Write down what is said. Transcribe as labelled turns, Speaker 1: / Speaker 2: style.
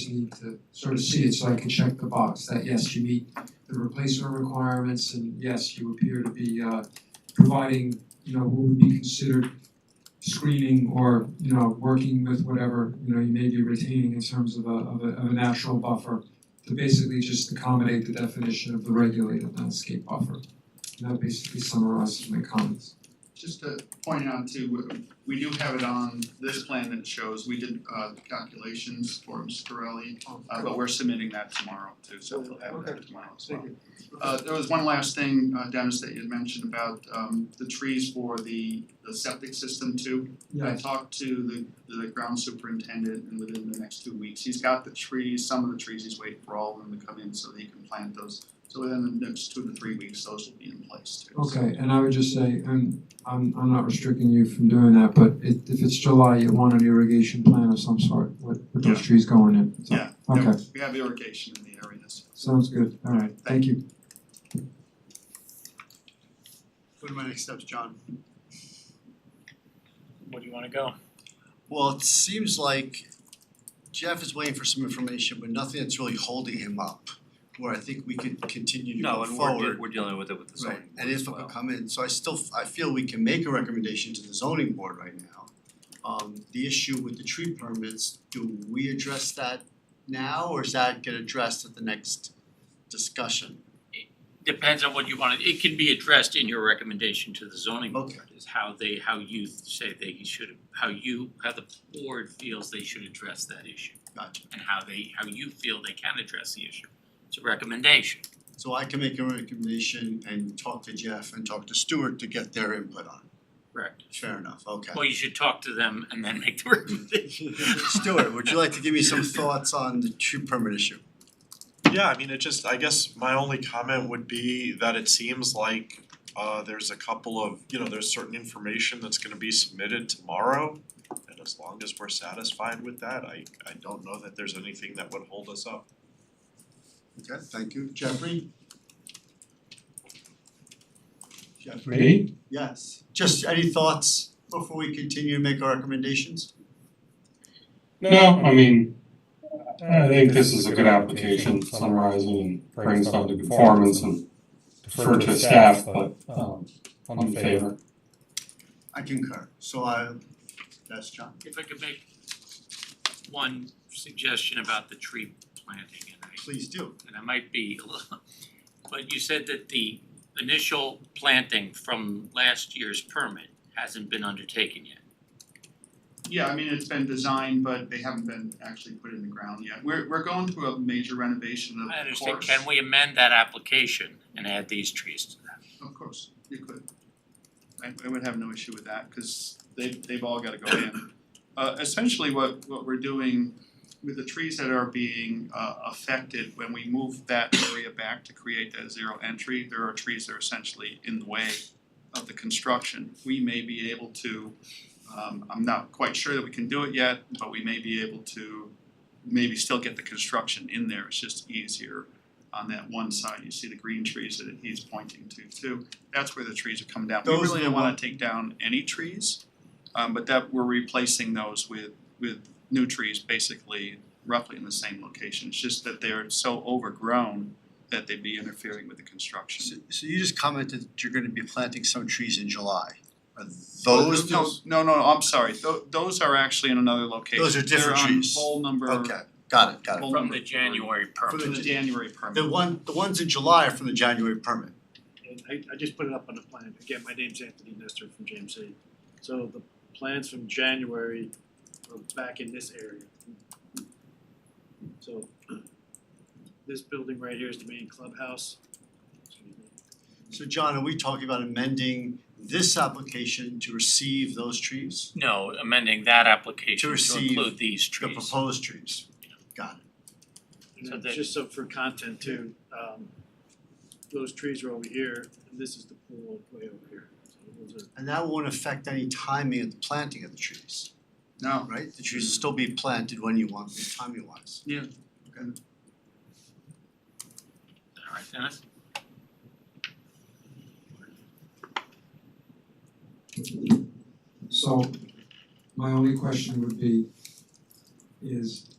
Speaker 1: just need to sort of see it so I can check the box that yes, you meet the replacement requirements and yes, you appear to be uh providing, you know, what would be considered screening or, you know, working with whatever, you know, you may be retaining in terms of a of a of a natural buffer to basically just accommodate the definition of the regulated landscape buffer. And that basically summarizes my comments.
Speaker 2: Just to point out too, we do have it on this plan that shows, we did uh the calculations for Ms. Corelli, uh but we're submitting that tomorrow too, so we'll have that tomorrow as well. Uh there was one last thing, uh Dennis, that you had mentioned about um the trees for the the septic system too. I
Speaker 1: Yeah,
Speaker 2: talked to the the ground superintendent and within the next two weeks, he's got the trees, some of the trees, he's waiting for all of them to come in so that he can plant those. So within the next two to three weeks, those will be in place too. So-
Speaker 1: okay, and I would just say, and I'm I'm not restricting you from doing that, but it if it's July, you want an irrigation plan of some sort with with those trees going in, so,
Speaker 2: Yeah.
Speaker 1: okay.
Speaker 2: Yeah, We have irrigation in the areas.
Speaker 1: Sounds good, alright, thank you.
Speaker 3: What are my next steps, John?
Speaker 4: Where do you wanna go?
Speaker 3: Well, it seems like Jeff is waiting for some information, but nothing that's really holding him up, where I think we could continue to
Speaker 5: No,
Speaker 3: go
Speaker 5: and we're de-
Speaker 3: forward.
Speaker 5: we're dealing with it with the zoning
Speaker 3: Right,
Speaker 5: board
Speaker 3: and
Speaker 5: as
Speaker 3: if it
Speaker 5: well.
Speaker 3: could come in, so I still, f- I feel we can make a recommendation to the zoning board right now. Um, the issue with the tree permits, do we address that now, or is that get addressed at the next discussion?
Speaker 4: Depends on what you wanna, it can be addressed in your recommendation to the zoning board,
Speaker 3: Okay.
Speaker 4: is how they, how you say they should, how you, how the board feels they should address that issue.
Speaker 3: Gotcha.
Speaker 4: And how they, how you feel they can address the issue, it's a recommendation.
Speaker 3: So I can make a recommendation and talk to Jeff and talk to Stuart to get their input on
Speaker 4: Correct.
Speaker 3: it. Fair enough, okay.
Speaker 4: Well, you should talk to them and then make the recommendation.
Speaker 3: Stuart, would you like to give me some thoughts on the tree permit issue?
Speaker 6: Yeah, I mean, it just, I guess my only comment would be that it seems like uh there's a couple of, you know, there's certain information that's gonna be submitted tomorrow. And as long as we're satisfied with that, I I don't know that there's anything that would hold us up.
Speaker 3: Okay, thank you. Jeffrey? Jeffrey?
Speaker 1: Me?
Speaker 3: Yes. Just any thoughts before we continue to make our recommendations?
Speaker 7: No, I mean, I think this is a good application summarizing and brings down to conformance and defer to staff, but um I'm in favor.
Speaker 3: I concur. So I, that's John.
Speaker 4: If I could make one suggestion about the tree planting and I
Speaker 3: Please do.
Speaker 4: and I might be a little, but you said that the initial planting from last year's permit hasn't been undertaken yet.
Speaker 2: Yeah, I mean, it's been designed, but they haven't been actually put in the ground yet. We're we're going through a major renovation of the course.
Speaker 4: I understand, can we amend that application and add these trees to that?
Speaker 2: Of course, you could. I I would have no issue with that, cause they they've all gotta go in. Uh essentially what what we're doing with the trees that are being uh affected, when we move that area back to create that zero entry, there are trees that are essentially in the way of the construction. We may be able to, um I'm not quite sure that we can do it yet, but we may be able to maybe still get the construction in there, it's just easier on that one side, you see the green trees that he's pointing to too. That's where the trees are coming down. We
Speaker 3: Those
Speaker 2: really
Speaker 3: are the
Speaker 2: don't wanna
Speaker 3: one-
Speaker 2: take down any trees. Um but that we're replacing those with with new trees basically roughly in the same location. It's just that they're so overgrown that they'd be interfering with the
Speaker 3: So
Speaker 2: construction.
Speaker 3: so you just commented that you're gonna be planting some trees in July. Are those
Speaker 2: No,
Speaker 3: those?
Speaker 2: no, no, I'm sorry. Tho- those are actually in another location.
Speaker 3: Those are different trees.
Speaker 2: They're on whole number.
Speaker 3: Okay, got it, got it.
Speaker 2: Well,
Speaker 4: From the January
Speaker 2: From
Speaker 4: permit.
Speaker 2: the January permit.
Speaker 3: The one, the ones in July are from the January permit.
Speaker 8: And I I just put it up on the plan, again, my name's Anthony Nestor from JMC. So the plans from January are back in this area. So this building right here is the main clubhouse. Excuse me.
Speaker 3: So John, are we talking about amending this application to receive those trees?
Speaker 4: No, amending that application
Speaker 3: To
Speaker 4: to
Speaker 3: receive
Speaker 4: include these
Speaker 3: The
Speaker 4: trees.
Speaker 3: proposed trees? Got it.
Speaker 4: So
Speaker 8: And
Speaker 4: that-
Speaker 8: then just so for content too, um those trees are over here and this is the pool way over here. So those are
Speaker 3: And that won't affect any timing of the planting of the trees,
Speaker 2: No,
Speaker 3: right? The trees will still be planted when you want, them, timing wise.
Speaker 4: Alright, Dennis?
Speaker 1: So my only question would be is